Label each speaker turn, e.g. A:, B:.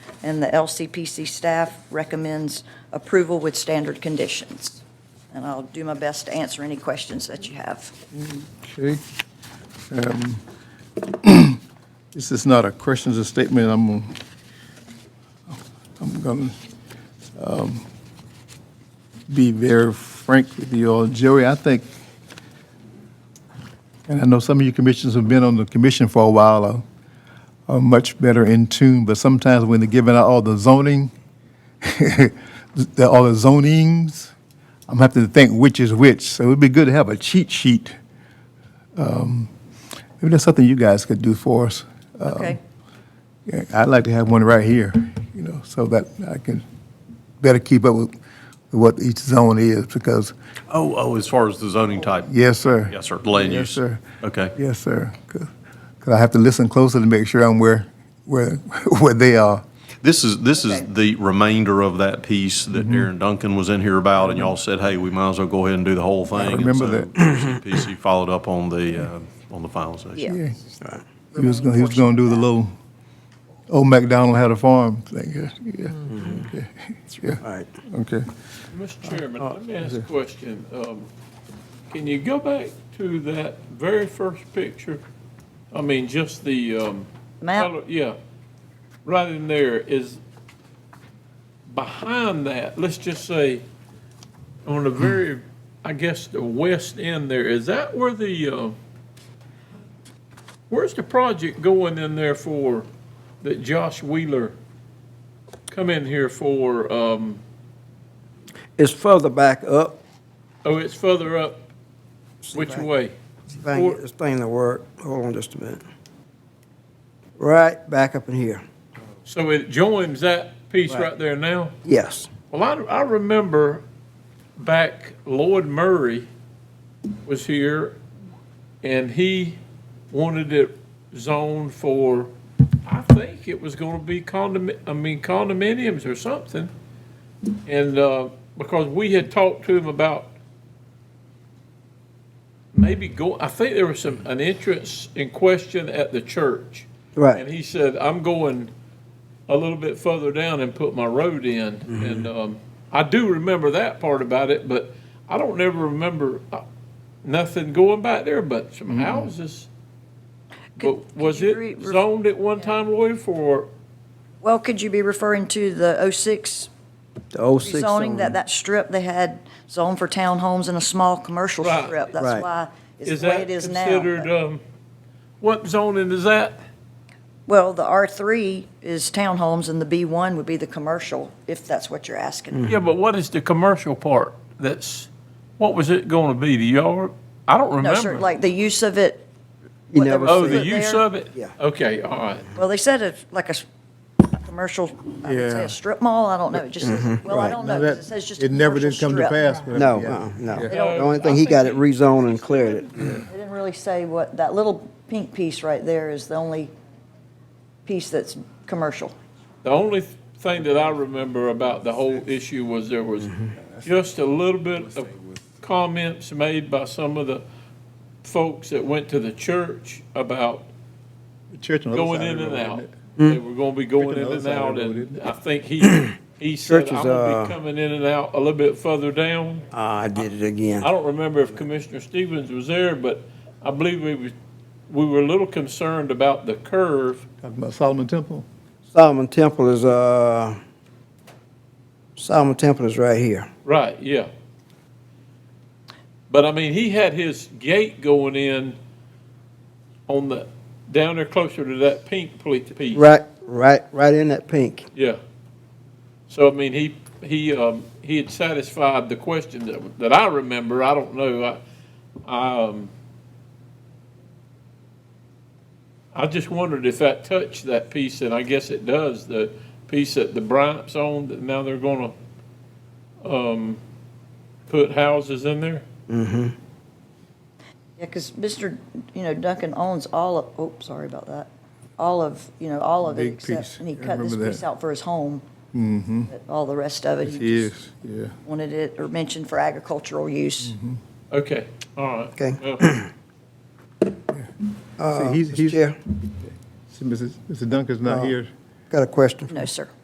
A: and the LCPC staff recommends approval with standard conditions. And I'll do my best to answer any questions that you have.
B: Okay. Um, This is not a question, it's a statement. I'm, gonna- I'm going to be very frank with you all. Jerry, I think, and I know some of you commissioners have been on the commission for a while, are- are much better in tune, but sometimes when they're giving out all the zoning, the- all the zonings, I'm having to think which is which. So it would be good to have a cheat sheet Maybe that's something you guys could do for us.
A: Okay?
B: Yeah, I'd like to have one right here, you know, so that I can better keep up with what each zone is, because,
C: Oh, oh, as far as the zoning type?
B: yes, sir.
C: Yes, sir, land
B: Yes,
C: use.
B: sir.
C: Okay.
B: Yes, sir. Because I have to listen closer to make sure I'm where, where, where they are.
C: This is, this is
A: Okay.
C: the remainder of that piece that
B: Mm-hmm.
C: Aaron Duncan was in here about, and y'all said, hey, we might as well go ahead and do the whole thing. and
B: remember
C: so
B: that.
C: PCPC followed up on the, uh, on the finalization.
A: Yeah.
B: Yeah. He was gonna, he was gonna do the little, old MacDonald had a farm thing, yeah,
D: Mm-hmm.
B: yeah, yeah.
E: Right.
B: yeah. Okay.
D: Mr. Chairman, let me ask a question. Um, Can you go back to that very first picture? I mean, just the. um,
A: Map?
D: color- Yeah, right in there is, behind that, let's just say, on the very, I guess, the west end there, is that where the, uh, where's the project going in there for, that Josh Wheeler come in here for, um,
E: It's further back up.
D: Oh, it's further up, which
E: Back.
D: way?
E: See if I can get this thing to work. Hold on just a minute. Right back up in here.
D: So it joins that piece
E: Right.
D: right there now?
E: Yes.
D: Well, I, I remember back Lloyd Murray was here and he wanted it zoned for, I think it was gonna be condom, I mean condominiums or something. And, uh, because we had talked to him about maybe go, I think there was some, an entrance in question at the church.
E: Right.
D: And he said, I'm going a little bit further down and put my road in.
E: Mm-hmm.
D: And um, I do remember that part about it, but I don't never remember uh, nothing going back there but some
E: Mm-hmm.
D: houses.
A: Could-
D: But was
A: could you
D: it
A: re- re-
D: zoned at one time, Lloyd, for,
A: Well, could you be referring to the 06
E: The 06
A: rezoning,
E: zone.
A: that, that strip they had zoned for townhomes and a small commercial
D: Right.
A: strip?
E: Right.
A: That's why
D: is
A: it's the way
D: that
A: it is now. but-
D: considered, um, what zoning is that?
A: Well, the R3 is townhomes and the B1 would be the commercial, if that's what you're asking.
D: Yeah, but what is the commercial part that's, what was it going to be, the yard? I don't
A: No, sir,
D: remember.
A: like the use of it.
E: You
A: what they
E: never
A: were
D: Oh,
A: putting
D: the use
A: there.
D: of it?
E: Yeah.
D: Okay, all right.
A: Well, they said it's like a s- commercial, I would say
B: Yeah. Mm-hmm.
A: a strip mall, I don't know, it just, says- well, I
E: Right.
A: don't
B: Now
A: know, 'cause
B: that-
A: it says just a
B: It never
A: commercial
B: did come to
A: strip.
B: pass. but-
E: No,
B: yeah.
E: uh-uh, no.
B: Yeah.
E: The only thing, he got it rezoned and cleared it.
A: They didn't really say what, that little pink piece right there is the only piece that's commercial.
D: The only th- thing that I remember about the whole issue was there was just a little bit of comments made by some of the folks that went to the church about
B: The Church on the other
D: going
B: side of
D: in
B: the
D: and
B: road,
D: out.
B: isn't it?
D: They were gonna be going
B: Freaking
D: in and
B: outside
D: out,
B: road,
D: and
B: isn't
D: I think he, he said,
E: Church is,
D: I'm gonna
E: uh,
D: be coming in and out a little bit further down.
E: Ah, I did it again.
D: I don't remember if Commissioner Stevens was there, but I believe we was, we were a little concerned about the curve.
B: Talking about Solomon Temple.
E: Solomon Temple is, uh, Solomon Temple is right here.
D: Right, yeah. But I mean, he had his gate going in on the, down there closer to that pink ple- piece.
E: Right, right, right in that pink.
D: Yeah. So I mean, he, he, um, he had satisfied the question that, that I remember. I don't know. I, I, um, I just wondered if that touched that piece, and I guess it does, the piece that the Bryant's owned, that now they're gonna, um, put houses in there.
A: Yeah, because Mr., you know, Duncan owns all of, oh, sorry about that, all of, you know, all of it
B: Big
A: except,
B: piece.
A: and he
B: I
A: cut this
B: remember
A: piece
B: that.
A: out for his home. But All the rest of it,
B: It
A: he just
B: is, yeah.
A: wanted it, or mentioned for agricultural use.
B: Mm-hmm.
D: Okay, all right.
E: Okay.
D: Well,
B: See, he's,
E: Mr.
B: he's,
E: Uh, Chair,
B: see, Mrs. Mr. Duncan's not
E: Uh,
B: here.
E: got a question.
A: No, sir.